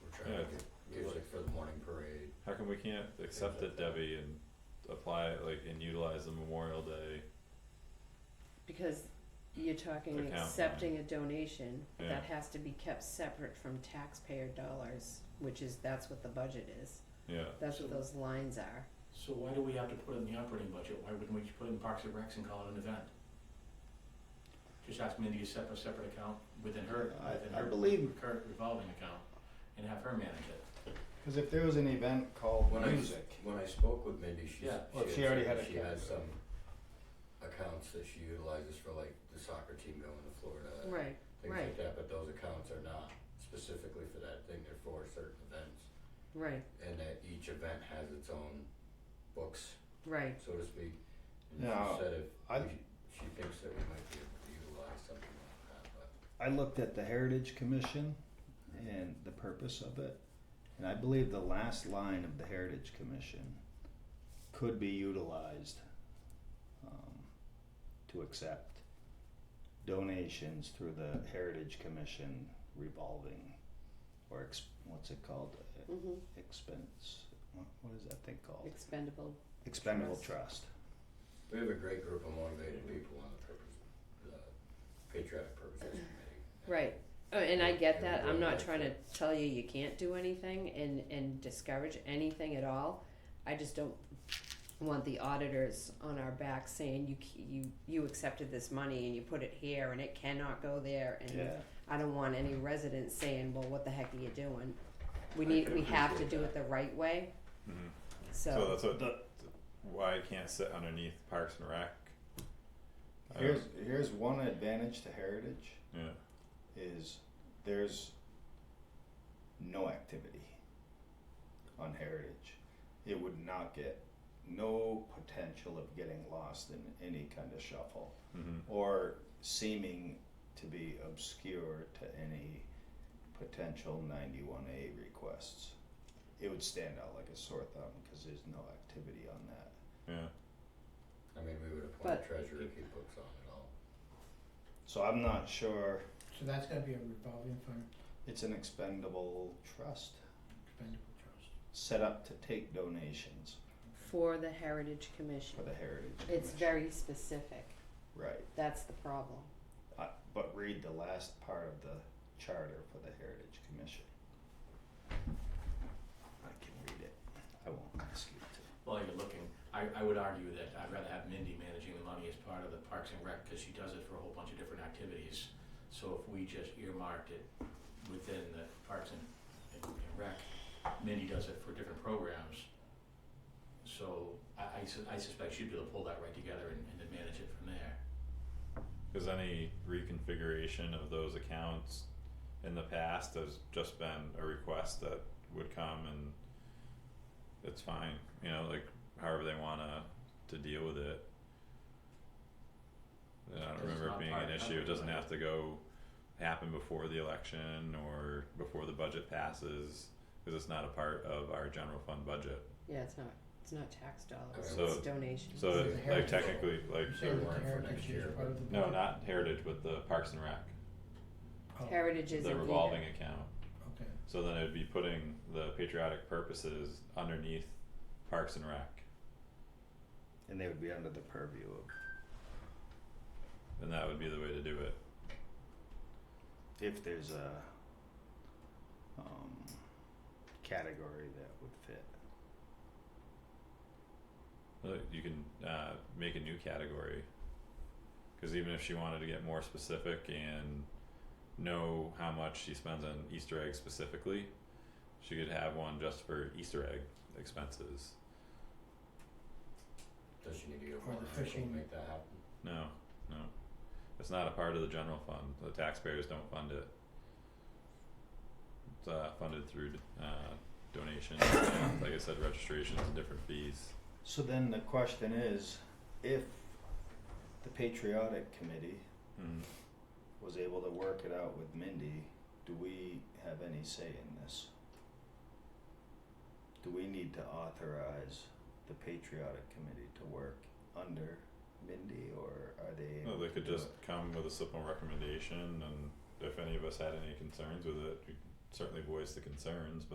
we can't accept it, Debbie, and apply it like and utilize the Memorial Day, Because you're talking Account, yeah. accepting a donation, but that Yeah. has to be kept separate from taxpayer dollars, which is, that's what the budget is. yeah, That's what So- those lines are. So why do we have to put it in the operating budget? Why wouldn't we just put it in Parks and Recs and call it an event? Just ask Mindy to set up a separate account within her, I- within I her believe- current revolving account and have her manage it. Cause if there was an event called When I- music, When I spoke with Mindy, she Yeah. s- Well, she she had already said had she a has cat. some accounts that she utilizes for like the soccer team going to Florida. and Right, Things right. like that, but those accounts are not specifically for that thing, they're for certain events. right, And that each event has its own books, right. so to speak. And Now, she said if I- we- she thinks that we might be able to utilize something like that, but I looked at the Heritage Commission and the purpose of it. And I believe the last line of the Heritage Commission could be utilized um, to accept donations through the Heritage Commission revolving or ex- what's it called? hmm Expense. What, what is that thing called? expendable, Expendable Trust. trust. we have a great group of motivated people on the purpose, the patriotic purposes committee. right. Oh, and I get that, I'm not Everybody trying to likes tell you you can't do anything and, and discourage anything at all. I just don't want the auditors on our back saying you, c- you, you accepted this money and you put it here and it cannot go there and Yeah. I don't want any residents saying, well, what the heck are you doing? We I need, can we have to appreciate do that. it the right way, mhm. So so, that's what, why it can't sit underneath Parks and Rec. Uh, I don't- Here's here's one advantage to Heritage. Yeah, is there's no activity on heritage. It would not get no potential of getting lost in any kind of shuffle mhm, or seeming to be obscure to any potential 91A requests. It would stand out like a sore thumb because there's no activity on that. yeah, I mean, we would appoint But- a treasurer to keep books on it all. So I'm not sure So that's gotta be a revolving fund it's an expendable trust expendable trust. set up to take donations for the Heritage Commission. for the heritage. It's Commission. very specific, Right, that's the problem. uh, but read the last part of the charter for the Heritage Commission. I can read it, I won't ask you to. While you're looking, I, I would argue that I'd rather have Mindy managing the money as part of the Parks and Rec, cause she does it for a whole bunch of different activities. So if we just earmarked it within the Parks and, and and Rec, Mindy does it for different programs. So I, I su- I suspect she'd be able to pull that right together and, and then manage it from there. cause any reconfiguration of those accounts in the past has just been a request that would come and it's fine, you know, like however they wanna to deal with it. And I don't Because it's remember it not being part an of issue, it doesn't government. have to go happen before the election or before the budget passes, cause it's not a part of our general fund budget. Yeah, it's not, it's not tax dollars, So- it's donations. So Is it it- the like heritage? technically, like, Say So we're the in for heritage next is year, part of the no, budget? not Heritage, but the Parks and Rec, Oh, Heritage isn't the either. revolving account. Okay, So then it'd be putting the patriotic purposes underneath Parks and Rec, And they would be under the purview of, and that would be the way to do it. if there's a, um, category that would fit. Uh, You can uh, make a new category, because even if she wanted to get more specific and know how much she spends on Easter eggs specifically, she could have one just for Easter egg expenses. Does she need to go Or for the an article to fishing. make that happen? No, no, it's not a part of the general fund. The taxpayers don't fund it. It's uh, funded through uh, donations, and, like I said, registrations and different fees. So then the question is, if the Patriotic Committee Mm. was able to work it out with Mindy, do we have any say in this? Do we need to authorize the Patriotic Committee to work under Mindy, or are they? No, able they to could do just come with a simple recommendation, and if any of us had any concerns with it, you could certainly voice the concerns,